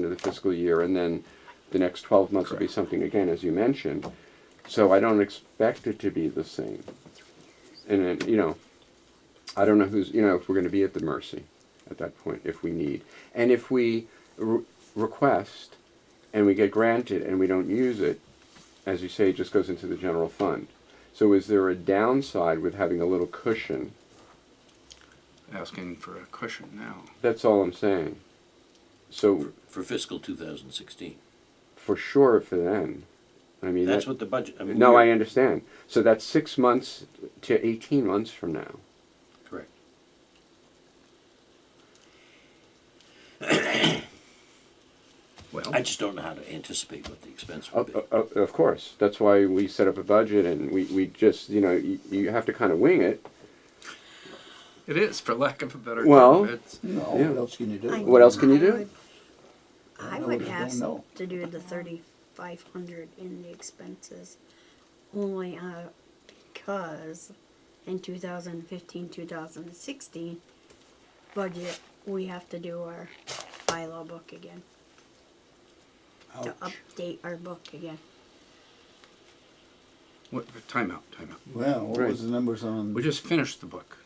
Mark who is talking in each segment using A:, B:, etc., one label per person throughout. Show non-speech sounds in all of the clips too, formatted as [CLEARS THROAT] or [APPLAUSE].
A: the fiscal year, and then the next twelve months will be something again, as you mentioned. So I don't expect it to be the same. And then, you know, I don't know who's, you know, if we're gonna be at the mercy at that point, if we need. And if we re- request and we get granted and we don't use it, as you say, it just goes into the general fund. So is there a downside with having a little cushion?
B: asking for a cushion now.
A: That's all I'm saying. So
C: for fiscal 2016.
A: for sure for then, I mean,
C: That's
A: that-
C: what the budget, I mean.
A: no, I
C: we're-
A: understand. So that's six months to 18 months from now.
C: Correct.
B: Well,
C: I just don't know how to anticipate what the expense
B: Oh,
C: will
A: Of,
C: be.
A: of, of course, that's why we set up a budget and we, we just, you know, you, you have to kind of wing it.
B: it is, for lack of a better
A: Well-
B: term. It's,
D: No,
A: Yeah.
D: what else can you do?
E: I-
A: What else can you
E: I
A: do?
E: would- I
D: know
E: would
D: if you don't
E: ask
D: know.
E: to do the thirty-five hundred in the expenses only uh, because in 2015, 2016 budget, we have to do our bylaw book again, to
D: Ouch.
E: update our book again.
B: what, timeout, timeout.
D: Well, what
A: Right.
D: was the numbers on?
B: We just finished the book.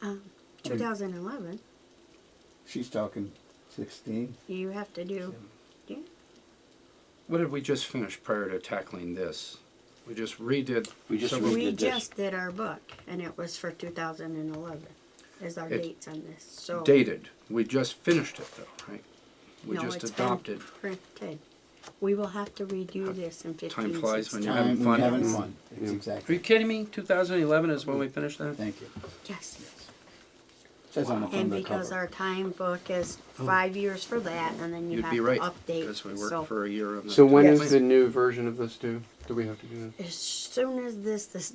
E: Um, 2011,
D: She's talking sixteen.
E: you have to do, yeah,
B: What did we just finish prior to tackling this? We just redid.
C: We just
B: several-
C: did
E: we
C: this.
E: just did our book and it was for 2011 is our
B: It-
E: dates on this, so.
B: dated. We just finished it though, right? We
E: No,
B: just
E: it's been
B: adopted.
E: Printed. We will have to redo this in fifteen,
B: flies when
E: sixteen.
B: you're having
D: Time-
B: fun.
D: Having fun. Mm, It's
B: Are you
D: exactly.
B: kidding me? 2011 is when we finished that?
D: Thank you.
E: Yes,
D: Says on the front
E: and
D: of the
E: because
D: cover.
E: our time book is
A: Oh.
E: five years for that, and then you
B: You'd
E: have
B: be
E: to
B: right.
E: update,
B: Because we worked
E: so.
B: for a year on that.
A: So when
E: Yes.
A: is the new version of this due? Do we have to do that?
E: As soon as this, this,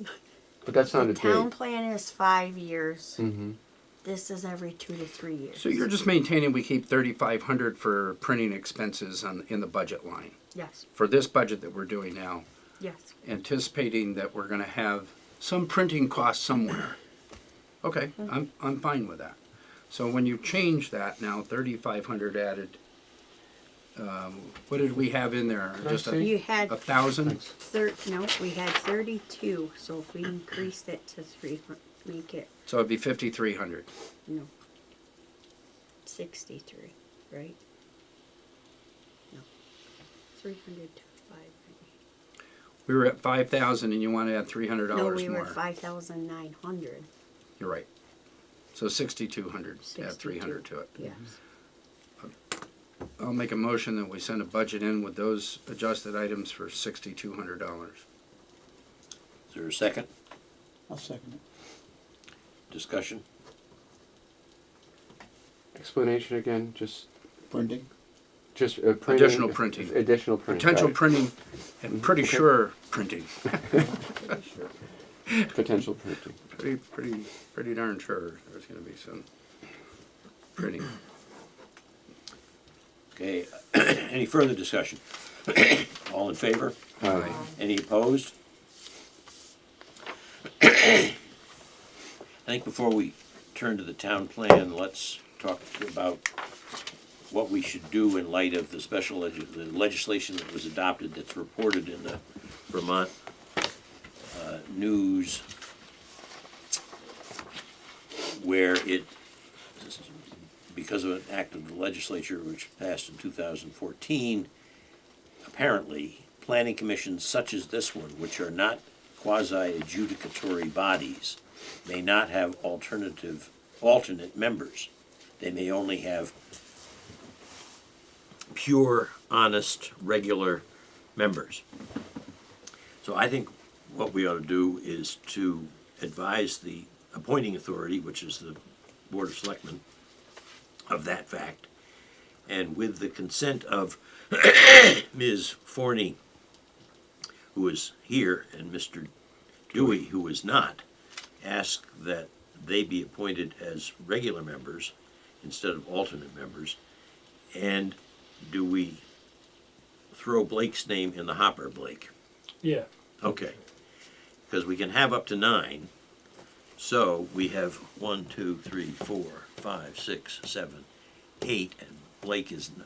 A: But that's not a
E: the town
A: date.
E: plan is five years,
A: Mm-hmm.
E: this is every two to three years.
B: So you're just maintaining we keep 3,500 for printing expenses on, in the budget line.
E: Yes,
B: For this budget that we're doing now,
E: yes,
B: anticipating that we're gonna have some printing cost somewhere. Okay, I'm, I'm fine with that. So when you change that now, thirty-five hundred added, um, what did we have in there?
A: I
B: Just
A: see?
B: a,
E: you had
B: a thousand?
E: thir, no, we had thirty-two, so if we increased it to three, hun- make it,
B: So it'd be fifty-three hundred.
E: no, sixty-three, right? No, three hundred to five.
B: We were at five thousand and you wanna add three hundred
E: No,
B: dollars
E: we were
B: more.
E: five thousand nine hundred,
B: You're right. So sixty-two hundred, add
E: 62.
B: three hundred to it.
E: yes.
B: I'll make a motion that we send a budget in with those adjusted items for sixty-two hundred dollars.
A: oh.
C: Is there a second
D: I'll second it.
C: discussion?
A: Explanation again, just,
D: Printing.
A: just uh, printing.
B: Additional printing.
A: Additional printing.
B: Potential
A: got it.
B: printing, and pretty sure printing.
A: Potential printing.
B: Pretty, pretty, pretty darn sure there's gonna be some printing.
C: Okay, [CLEARS THROAT] any further discussion? All in favor?
A: Aye.
C: Any opposed? I think before we turn to the town plan, let's talk about what we should do in light of the special leg- the legislation that was adopted that's reported in the Vermont uh, news where it, because of an act of the legislature which passed in 2014, apparently, planning commissions such as this one, which are not quasi-adjudicatory bodies, may not have alternative, alternate members. They may only have pure, honest, regular members. So I think what we ought to do is to advise the appointing authority, which is the Board of Selectmen, of that fact. And with the consent of Ms. Forney, who is here, and Mr. Dewey, who is not, ask that they be appointed as regular members instead of alternate members. And do we throw Blake's name in the hopper, Blake?
F: Yeah,
C: Okay. Because we can have up to nine. So we have one, two, three, four, five, six, seven, eight, and Blake is n-